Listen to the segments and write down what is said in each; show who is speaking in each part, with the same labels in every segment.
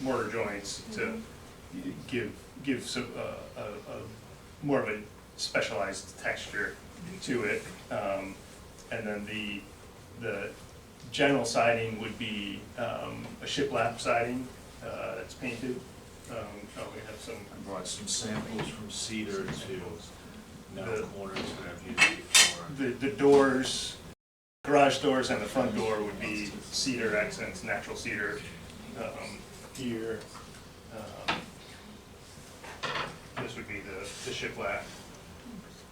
Speaker 1: mortar joints to give, give some, uh, a, a, more of a specialized texture to it. Um, and then the, the general siding would be, um, a shiplap siding, uh, that's painted. Um, oh, we have some,
Speaker 2: I brought some samples from cedar to metal
Speaker 1: The-
Speaker 2: corners that I've used before.
Speaker 1: the, the doors, garage doors and the front door would be cedar accents, natural cedar, um, here. um, This would be the, the shiplap,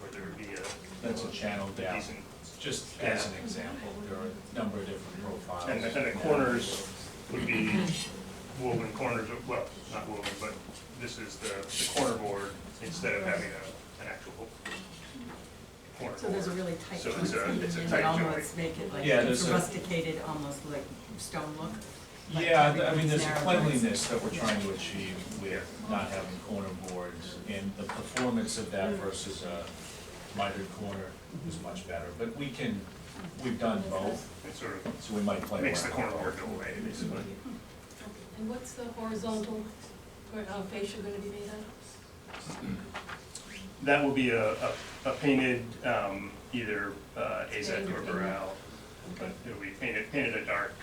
Speaker 1: where there would be a
Speaker 3: That's a channel down,
Speaker 1: decent,
Speaker 3: just as an example, there are a number of different profiles.
Speaker 1: and the, and the corners would be woven corners, of- well, not woven, but this is the, the corner board instead of having a, an actual corner
Speaker 4: So there's a
Speaker 1: board.
Speaker 4: really tight
Speaker 1: So
Speaker 4: joint
Speaker 1: it's a-
Speaker 4: seam
Speaker 1: it's a
Speaker 4: in
Speaker 1: tight
Speaker 4: that
Speaker 1: joint.
Speaker 4: almost make it like,
Speaker 3: Yeah, there's
Speaker 4: it's
Speaker 3: a-
Speaker 4: rusticated, almost like stone look. like
Speaker 3: Yeah, th- I mean,
Speaker 4: everything's
Speaker 3: there's a
Speaker 4: narrow.
Speaker 3: cleanliness that we're trying to achieve with not having corner boards, and the performance of that
Speaker 4: Mm-hmm.
Speaker 3: versus a mitered corner is much better, but we can, we've done both,
Speaker 1: It sort of
Speaker 3: so we might play around.
Speaker 1: makes the corner board go away, basically.
Speaker 5: And what's the horizontal or, uh, fascia gonna be made out of?
Speaker 1: That will be a, a a painted, um, either uh, Azek or Burrell, but it'll be painted, painted a dark,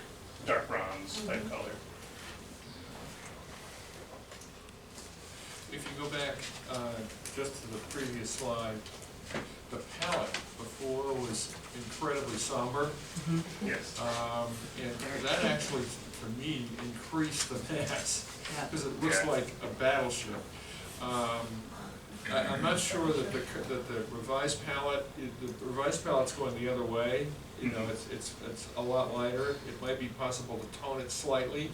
Speaker 1: dark bronze type color.
Speaker 6: If you go back, uh, just to the previous slide, the palette before was incredibly somber.
Speaker 1: Yes,
Speaker 6: Um, and that actually, for me, increased the mass, because it looks
Speaker 1: Yeah.
Speaker 6: like a battleship. Um, I, I'm not sure that the, cur- that the revised palette, i- the revised palette's going the other way. You know,
Speaker 1: Mhm.
Speaker 6: it's, it's, it's a lot lighter. It might be possible to tone it slightly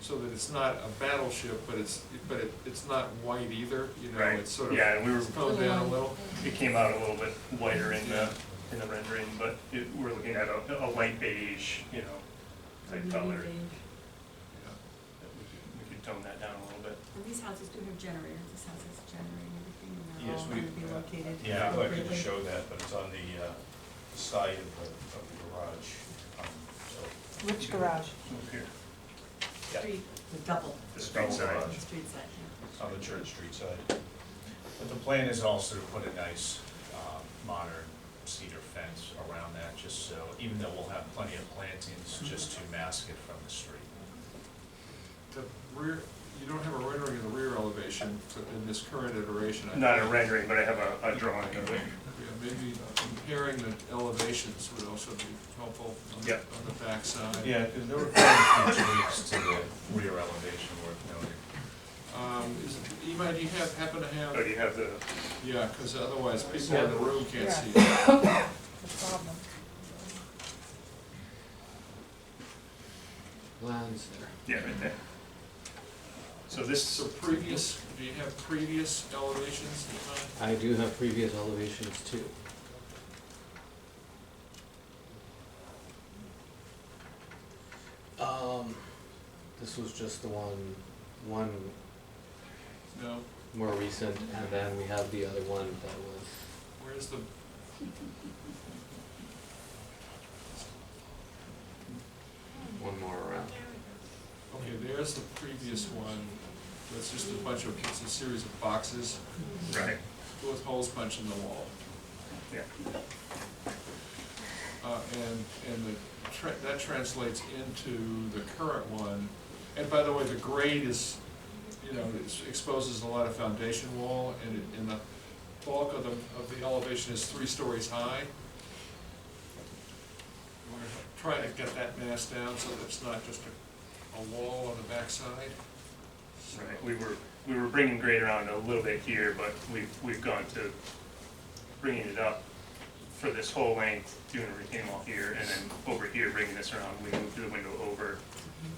Speaker 6: so that it's not a battleship, but it's, but it, it's not white either, you know,
Speaker 1: Right.
Speaker 6: it's sort of
Speaker 1: Yeah, and we were-
Speaker 6: toned down a little.
Speaker 1: it came out a little bit whiter in the, in the rendering, but it, we're looking at a, a light beige, you know,
Speaker 4: Mm-hmm.
Speaker 1: type color.
Speaker 5: Maybe
Speaker 6: Yeah.
Speaker 1: that We could- we could tone that down a little bit.
Speaker 4: And these houses do have generators, this house has a generator and everything, and they're
Speaker 3: Yes,
Speaker 4: all
Speaker 3: we-
Speaker 4: gonna be located.
Speaker 3: Yeah, I'd like to
Speaker 4: appropriately.
Speaker 3: show that, but it's on the, uh, side of the, of the garage, um, so,
Speaker 7: Which garage?
Speaker 1: Move here,
Speaker 3: yeah,
Speaker 4: Street, the double,
Speaker 1: the street
Speaker 3: Double
Speaker 1: side.
Speaker 4: the
Speaker 3: garage.
Speaker 4: street side, yeah.
Speaker 3: on the Church Street side. But the plan is also to put a nice, um, modern cedar fence around that, just so, even though we'll have plenty of plantings, just to mask it from the street.
Speaker 6: The rear, you don't have a rendering of the rear elevation in this current iteration. I
Speaker 1: Not a
Speaker 6: think.
Speaker 1: rendering, but I have a, a drawing of it.
Speaker 6: Yeah, maybe comparing the elevations would also be helpful on the,
Speaker 1: Yeah.
Speaker 6: on the backside.
Speaker 3: Yeah, there were quite a few tweaks to the rear elevation worth noting.
Speaker 6: Um, is, Ema, do you have, happen to have,
Speaker 1: Oh, do you have the,
Speaker 6: yeah, because otherwise people in the room can't
Speaker 7: Yeah.
Speaker 6: see. it.
Speaker 7: The problem.
Speaker 8: Lines there.
Speaker 1: yeah, right there. So this.
Speaker 6: So previous, do you have previous elevations in mind?
Speaker 8: I do have previous elevations too. Um, this was just the one, one
Speaker 6: No,
Speaker 8: more recent, and then we have the other one that was,
Speaker 6: where's the?
Speaker 8: one more around.
Speaker 6: Okay, there's the previous one, that's just a bunch of, it's a series of boxes
Speaker 1: Right,
Speaker 6: with holes punched in the wall.
Speaker 1: yeah.
Speaker 6: Uh, and, and the, tra- that translates into the current one. And by the way, the grade is, you know, it exposes a lot of foundation wall, and it, and the bulk of the, of the elevation is three stories high. We're trying to get that mass down so that it's not just a, a wall on the backside. So-
Speaker 1: Right, we were, we were bringing grade around a little bit here, but we've, we've gone to bringing it up for this whole length, doing a retaining wall here, and then over here, bringing this around, we moved the window over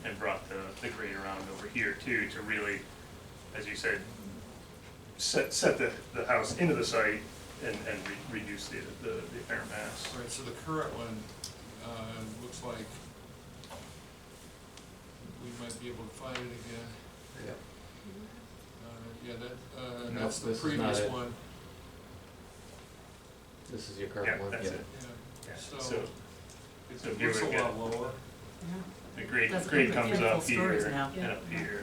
Speaker 1: and brought the, the grade around over here too, to really, as you said, set, set the, the house into the site and, and re- reduce the, the the apparent mass.
Speaker 6: All right, so the current one, uh, looks like we might be able to find it again.
Speaker 8: Yep.
Speaker 6: Uh, Yeah, that, uh,
Speaker 8: No,
Speaker 6: that's the
Speaker 8: this is not
Speaker 6: previous
Speaker 8: it.
Speaker 6: one,
Speaker 8: This is your
Speaker 1: Yeah,
Speaker 8: current one?
Speaker 1: that's it,
Speaker 6: yeah,
Speaker 1: yeah, so
Speaker 6: so
Speaker 1: so if
Speaker 6: it
Speaker 1: you
Speaker 6: looks a
Speaker 1: were to get-
Speaker 6: lot lower.
Speaker 4: Yeah.
Speaker 1: the grade,
Speaker 4: That's
Speaker 1: grade
Speaker 4: gonna
Speaker 1: comes
Speaker 4: be
Speaker 1: up
Speaker 4: full stories
Speaker 1: here
Speaker 4: now.
Speaker 1: and up here.